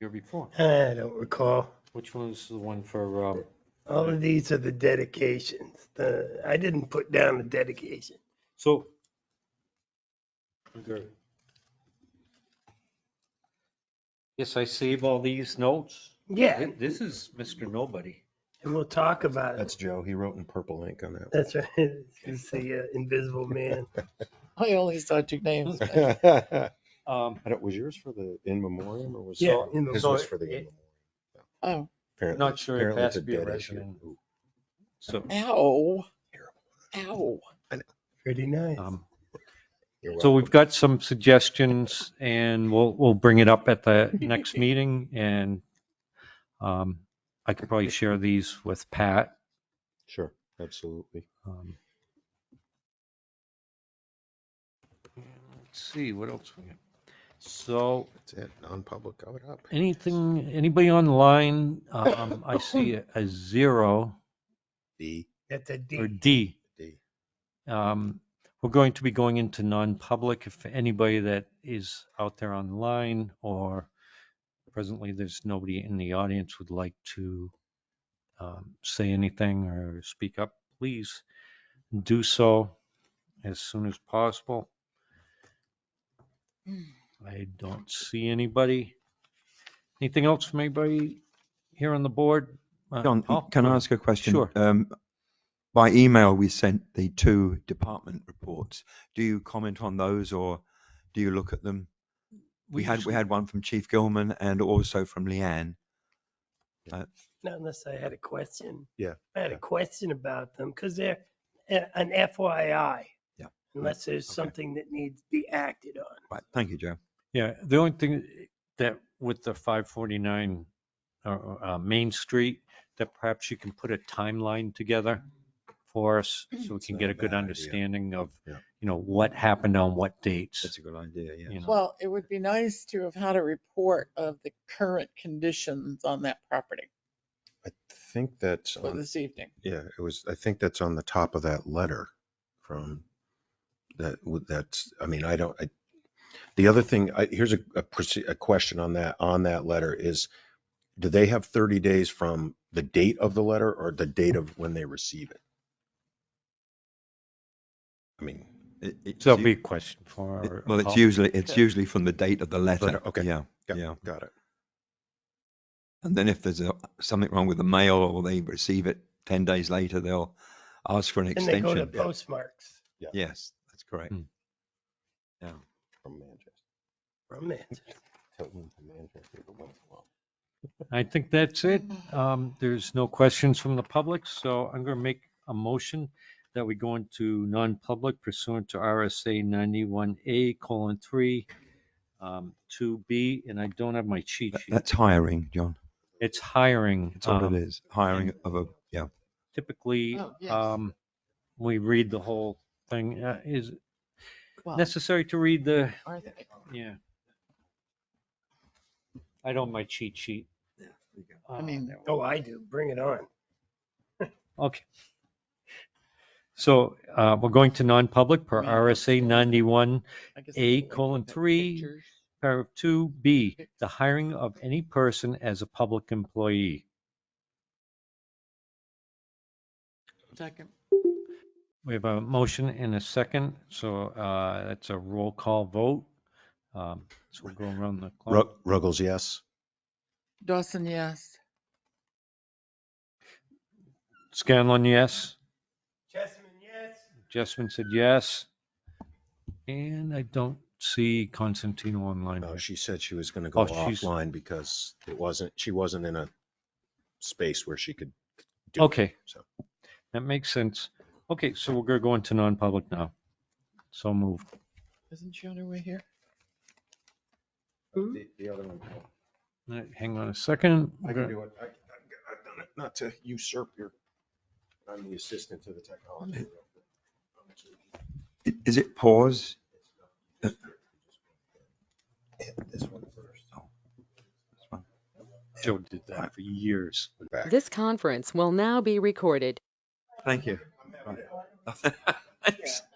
year before. I don't recall. Which one was the one for, um, All of these are the dedications. The, I didn't put down the dedication. so. Under- Yes, I save all these notes. Yeah, Thi- This is Mr. Nobody. and we'll talk about it. That's Joe. He wrote in purple ink on That's right. It's the uh, invisible man. I only saw two names. that. Um, I don't, was yours for the in memoriam or was? Yeah, oh, in His memoriam. was for the in memoriam. Oh, Apparently- Not sure it apparently has it's a to be a dead resident. issue. Ooh. so, ow. Terrible. Ow. Pretty nice. um, You're so welcome. we've got some suggestions and we'll, we'll bring it up at the next meeting and, um, I can probably share these with Pat. Sure, absolutely. Um, Let's see, what else we got? So That's it. Non-public, cover it up. anything, anybody online? Um, I see a- a zero D, That's a or D. D. D. Um, we're going to be going into non-public if anybody that is out there online or presently there's nobody in the audience would like to um, say anything or speak up, please do so as soon as possible. I don't see anybody. Anything else from anybody here on the board? Uh, John, Paul? can I ask a question? Sure. Um, By email, we sent the two department reports. Do you comment on those or do you look at them? We had, just- we had one from Chief Gilman and also from Leanne. Not unless I had a question. Yeah, I had a yeah. question about them because they're a- an FYI. Yeah, right, Unless there's okay. something that needs to be acted on. Right, thank you, Joe. Yeah, the only thing that with the five forty-nine, uh, uh, Main Street, that perhaps you can put a timeline together for us so we It's can not get a a good bad idea. understanding of, Yeah. you know, what happened on what dates. That's a good idea, yeah. you know. Well, it would be nice to have had a report of the current conditions on that property I think that's, for on- this evening. yeah, it was, I think that's on the top of that letter from that, would- that's, I mean, I don't, I, the other thing, I, here's a, a proce- a question on that, on that letter is, do they have 30 days from the date of the letter or the date of when they receive it? I mean, It- it's So that'll u- be a question for. it- our- Well, it's Paul. usually, it's usually from the date of the letter. Letter, okay. Yeah, got- yeah. got it. And then if there's a- something wrong with the mail or they receive it 10 days later, they'll ask for an And they go to extension. yeah. postmarks Yes, that's correct. Hmm. Yeah. From Manchester, from that. Tilton to Manchester, but once in a while. I think that's it. Um, there's no questions from the public, so I'm gonna make a motion that we go into non-public pursuant to RSA ninety-one A colon three, um, two B, and I don't have my cheat That- sheet. That's hiring, John. It's hiring. That's all Um, it is. Hiring of a, yeah. Typically, Oh, yes. um, we read the whole thing. Uh, Is it Well, necessary to read the, are they- yeah. I don't have my cheat sheet. Uh, I mean, Oh, I do. Bring it on. Okay. So uh, we're going to non-public per Right. RSA 91, I guess. A they look colon at the three. pictures. paragraph 2B, the hiring of any person as a public employee. Second. We have a motion and a second, so uh, that's a roll call vote. Um, So we'll go around the clock. Rug- Ruggles, yes. Dawson, yes. Scanlon, yes. Chessman, yes. Jessman said yes. And I don't see Constantino online. No, Uh, she said she was going to go Oh, she's- offline because it wasn't, she wasn't in a space where she could do it. Okay. so. That makes sense. Okay, so we're going to go into non-public now. So moved. Isn't she on her way here? The, the other one, All right, Hang on a second. I can do it. I, I've got- I've done it, not to usurp your, I'm the assistant to the technology. I- Is it pause? Hit This one first. Joe did that for years. Back. This conference will now be recorded. Thank you. I'm happy to help. Thanks.